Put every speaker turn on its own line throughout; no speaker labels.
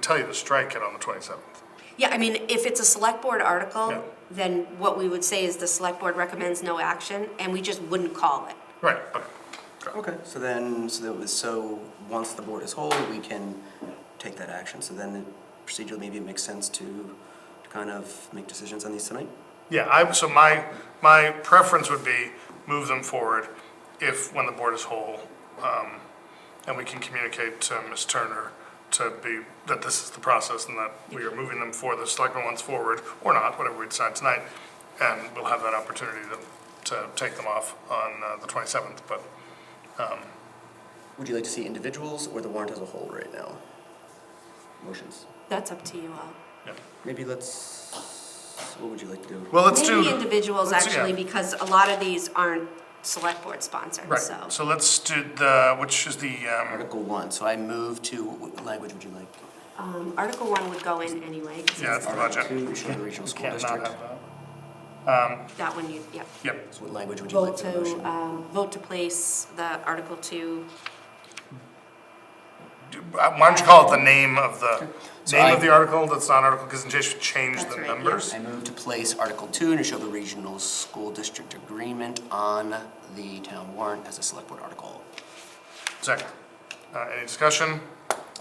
tell you to strike it on the 27th.
Yeah, I mean, if it's a select board
Yeah.
article, then what we would say is the select board recommends no action, and we just wouldn't call it.
Right, okay.
Okay, so then, so that was, so once the board is whole, we can take that action. So then procedurally, maybe it makes sense to to kind of make decisions on these tonight?
Yeah, I, so my, my preference would be move them forward if, when the board is whole, um, and we can communicate to Ms. Turner to be, that this is the process and that we are moving them for the selectmen ones forward, or not, whatever we decide tonight, and we'll have that opportunity to, to take them off on uh, the 27th, but
Would you like to see individuals or the warrant as a whole right now? Motions?
That's up to you all.
Maybe let's, what would you like to do?
Well, let's do.
Maybe individuals,
let's- yeah.
actually, because a lot of these aren't select board sponsored, so.
Right, so let's do the, which is the, um,
Article one, so I move to, what language would you like?
Um, Article one would go in anyway, 'cause
yeah, it's the budget.
Article two, Shoreland Regional School
Can't not
District.
have that.
that one you, yeah.
Yep,
So what language would you like
Vote
for the motion?
to, um, vote to place the Article two,
Do- uh, why don't you call it the name of the,
So
name
I-
of the article that's not an article, because in case you change
That's
the
right, yeah.
numbers.
I move to place Article 2, Neshoba Regional School District Agreement on the town warrant as a select board article.
Second. Uh, any discussion?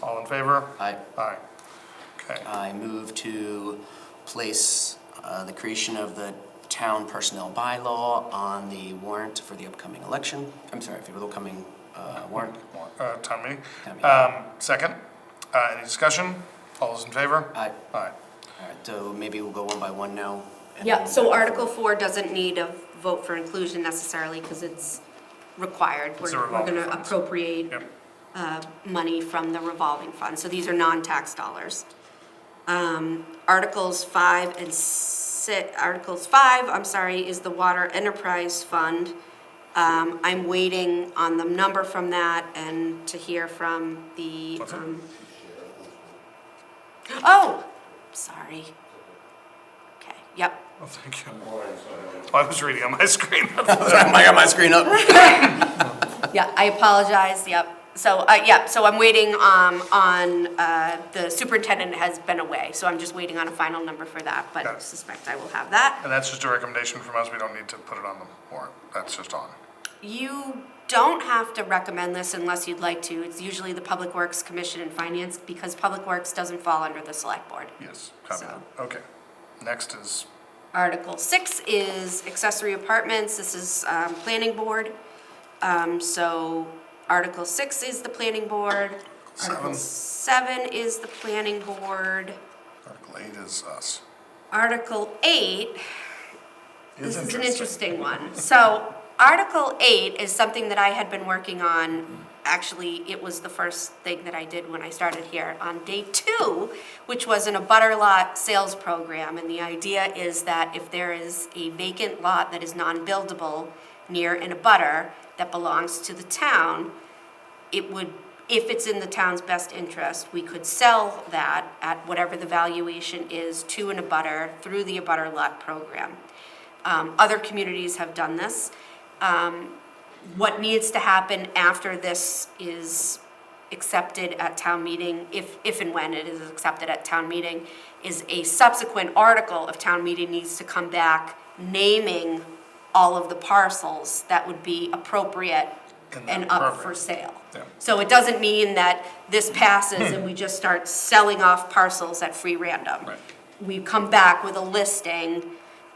All in favor?
I,
Aye. Okay,
I move to place uh, the creation of the town personnel bylaw on the warrant for the upcoming election. I'm sorry, for the upcoming uh, warrant.
uh, town meeting.
Town meeting.
Um, second, uh, any discussion? All those in favor?
I,
Aye.
all right, so maybe we'll go one by one now. and
yeah,
then-
so Article four doesn't need a vote for inclusion necessarily, because it's required.
It's a
We're, we're
revolving
gonna
fund.
appropriate
Yep,
uh, money from the revolving fund, so these are non-tax dollars. Um, Articles five and si, Articles five, I'm sorry, is the Water Enterprise Fund. Um, I'm waiting on the number from that and to hear from the,
What's that?
um. Oh, sorry. Okay, yep,
well, thank you. Oh, I was reading on my screen.
I got my screen up.
Yeah, I apologize, yep. So, uh, yeah, so I'm waiting, um, on, uh, the superintendent has been away, so I'm just waiting on a final number for that, but
Got it.
suspect I will have that.
And that's just a recommendation from us, we don't need to put it on the warrant, that's just on.
You don't have to recommend this unless you'd like to. It's usually the Public Works Commission and Finance, because Public Works doesn't fall under the select board.
Yes, copy that. Okay, next is,
Article six is accessory apartments, this is, um, planning board. Um, so Article six is the planning board.
Seven.
Article seven is the planning board.
Article 8 is us.
Article eight,
Is
this is an interesting one. So Article eight is something that I had been working on. Actually, it was the first thing that I did when I started here on day two, which was in a butter lot sales program. And the idea is that if there is a vacant lot that is non-buildable near in a butter that belongs to the town, it would, if it's in the town's best interest, we could sell that at whatever the valuation is to an abutter through the abutter lot program. Um, other communities have done this. Um, what needs to happen after this is accepted at town meeting, if, if and when it is accepted at town meeting, is a subsequent article of town meeting needs to come back naming all of the parcels that would be appropriate
In that
and up for
program.
sale.
Yeah. Hmm.
So it doesn't mean that this passes and we just start selling off parcels at free random.
Right.
We come back with a listing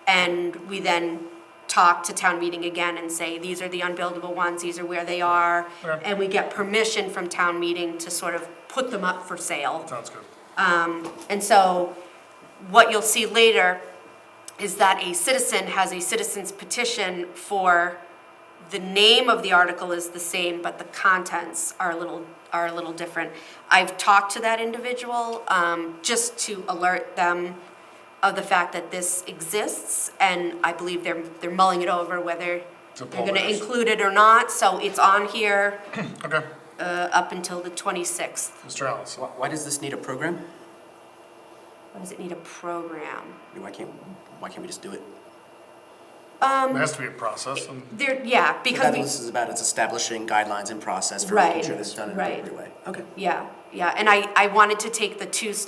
and we then talk to town meeting again and say, these are the unbuildable ones, these are where they are.
Okay.
And we get permission from town meeting to sort of put them up for sale.
Sounds good.
And so what you'll see later is that a citizen has a citizen's petition for, the name of the article is the same, but the contents are a little, are a little different. I've talked to that individual, um, just to alert them of the fact that this exists, and I believe they're, they're mulling it over whether
To
they're gonna
publish.
include it or not, so it's on here,
Okay,
uh, up until the twenty-sixth.
Mr. Ellis.
Why why does this need a program?
Does it need a program?
Why can't, why can't we just do it?
There has to be a process, and
There, yeah,
That's
because
what
we,
this is about, it's establishing guidelines and process for making
Right,
sure that's done in an
right.
appropriate way. Okay.
yeah, yeah, and I, I wanted to take the two steps